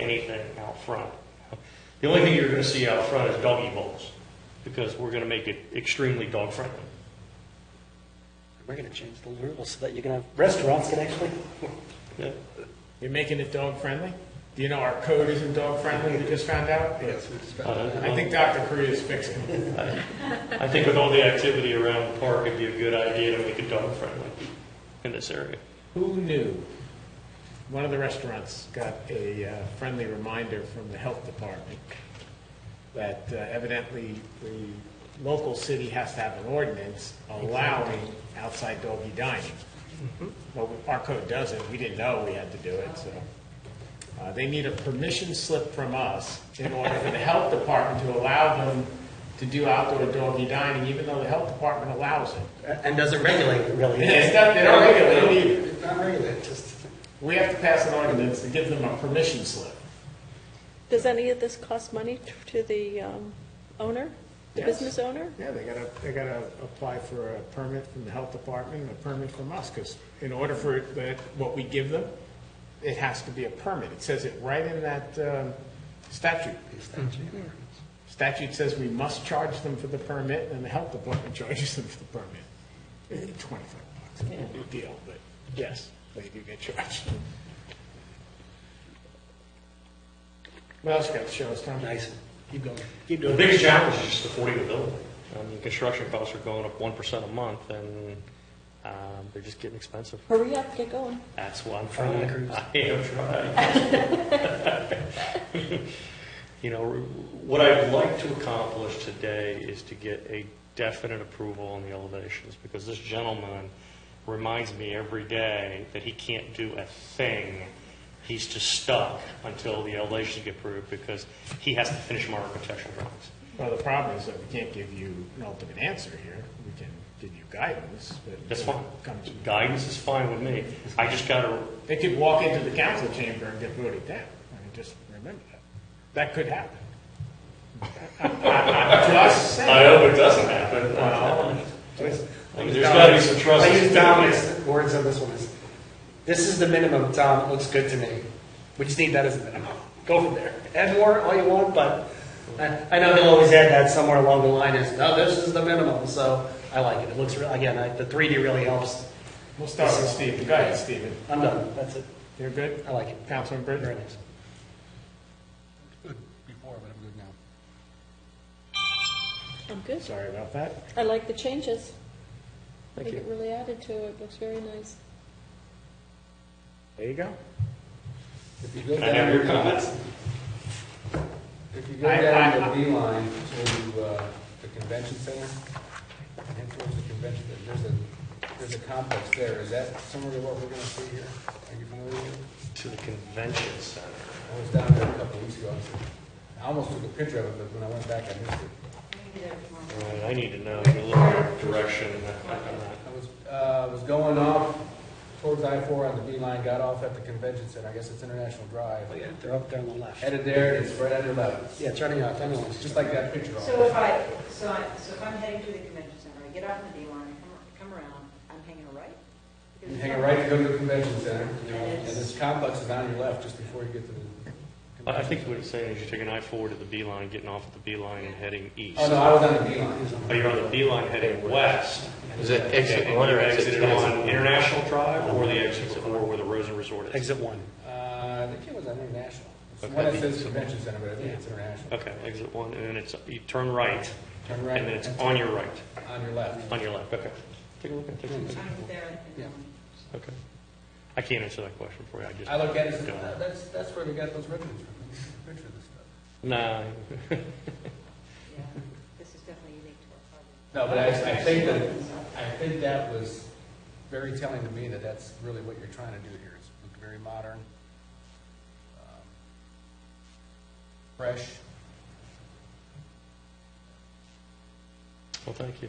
anything out front. The only thing you're going to see out front is doggy bowls, because we're going to make it extremely dog-friendly. We're going to change the rules so that you can have, restaurants can actually, Yeah. You're making it dog friendly? Do you know our code isn't dog friendly, we just found out? I Uh, think Dr. Korea is fixing it. I think with all the activity around the park, it'd be a good idea to make it dog-friendly in this area. Who knew? One of the restaurants got a uh, friendly reminder from the health department that uh, evidently the local city has to have an ordinance allowing outside doggy dining. Well, our code doesn't, we didn't know we had to do it, so. uh, They need a permission slip from us in order for the health department to allow them to do outdoor doggy dining, even though the health department allows it. and doesn't regulate really. It's not, they don't regulate it either. It's not regulated, just, We have to pass an ordinance to give them a permission slip. Does any of this cost money t- to the um, owner, the Yes. business owner? Yeah, they gotta, they gotta apply for a permit from the health department, and a permit from us, because in order for it- that, what we give them, it has to be a permit. It says it right in that um, statute. Statute says we must charge them for the permit, and the health department charges them for the permit. Eh, Twenty-five bucks, no big deal, but yes, they do get charged. What else you got to show us, Tom? nice. Keep going. Keep The doing it. biggest challenge is just affording the building. I mean, construction costs are going up 1% a month, and um, they're just getting expensive. Hurry up, get going. That's what I'm Trying trying. to cruise. I am trying. You know, what I'd like to accomplish today is to get a definite approval on the elevations, because this gentleman reminds me every day that he can't do a thing. He's just stuck until the elevations get approved, because he has to finish my architectural drawings. Well, the problem is that we can't give you an ultimate answer here. We can give you guidance, but. That's you know, fine. comes- Guidance is fine with me. I just got to, They could walk into the council chamber and get voted down. I mean, just remember that. That could happen. Just I saying. hope it doesn't happen. Well, There's got to be some trust. I use Dominic's words on this one. is, This is the minimum, Tom, looks good to me. We just need that as a minimum. Go from there. Add more all you want, but uh, I, I know they'll always add that somewhere along the line is, no, this is the minimum, so I like it. It looks, real again, I- the 3D really helps. We'll start with Stephen. Go ahead, Stephen. I'm done, that's it. You're good? I like it. Councilman Very Britton? nice. good before, but I'm good now. I'm good. Sorry about that. I like the changes. I Thank think it you. really added to it, looks very nice. There you go. If you go I have your down, comments. if you go I- down I- the V line to uh, the convention center, and towards the convention, there's a, there's a complex there. Is that similar to what we're gonna see here? Are you familiar with it? to the convention center. I was down there a couple of weeks ago. I was- I almost took a picture of it, but when I went back, I missed it. Right, I need to know a little direction. I was, uh, was going off towards I-4 on the V line, got off at the convention center. I guess it's International Drive. Oh, yeah, They're up there on the left. Headed there, and it's right at your left. Yeah, turning out, turning on. Just like that picture. So if I, so I, so if I'm heading to the convention center, I get off in the D line, I come, come around, I'm hanging a right? Because You it's hang a not- right to go to the convention center, and this complex is on your left just before you get to the. I I think what it's saying is you take an I-4 to the B line, getting off at the B line and heading east. Oh, no, I was on the B line. Oh, you're on the B line heading west. Is it And exit you one or exited exit two? on International Drive or the exit before where the Rosen Resort is? Exit one. Uh, I think it was on International. It's the Okay. one that says convention center, but I think it's International. Okay, exit one, and then it's, you turn right, Turn and right. then it's on your right, On your left. on your left, okay. Take a look at, take a look at, I'm there in the Yeah. morning. okay. I can't answer that question for you, I just. I look at it, and say, "Oh, that's, that's where they got those ribbons from, picture of this stuff. Nah, Yeah, this is definitely unique to our project. No, but I, I think that, I think that was very telling to me that that's really what you're trying to do here, is look very modern, um, fresh. well, thank you.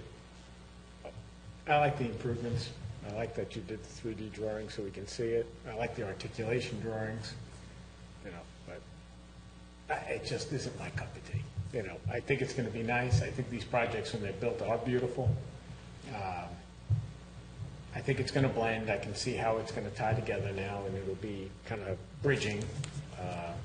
I like the improvements. I like that you did the 3D drawing so we can see it. I like the articulation drawings, you know, but I- it just isn't my cup of tea. You know, I think it's going to be nice. I think these projects, when they're built, are beautiful. Um, I think it's going to blend. I can see how it's going to tie together now, and it'll be kind of bridging uh,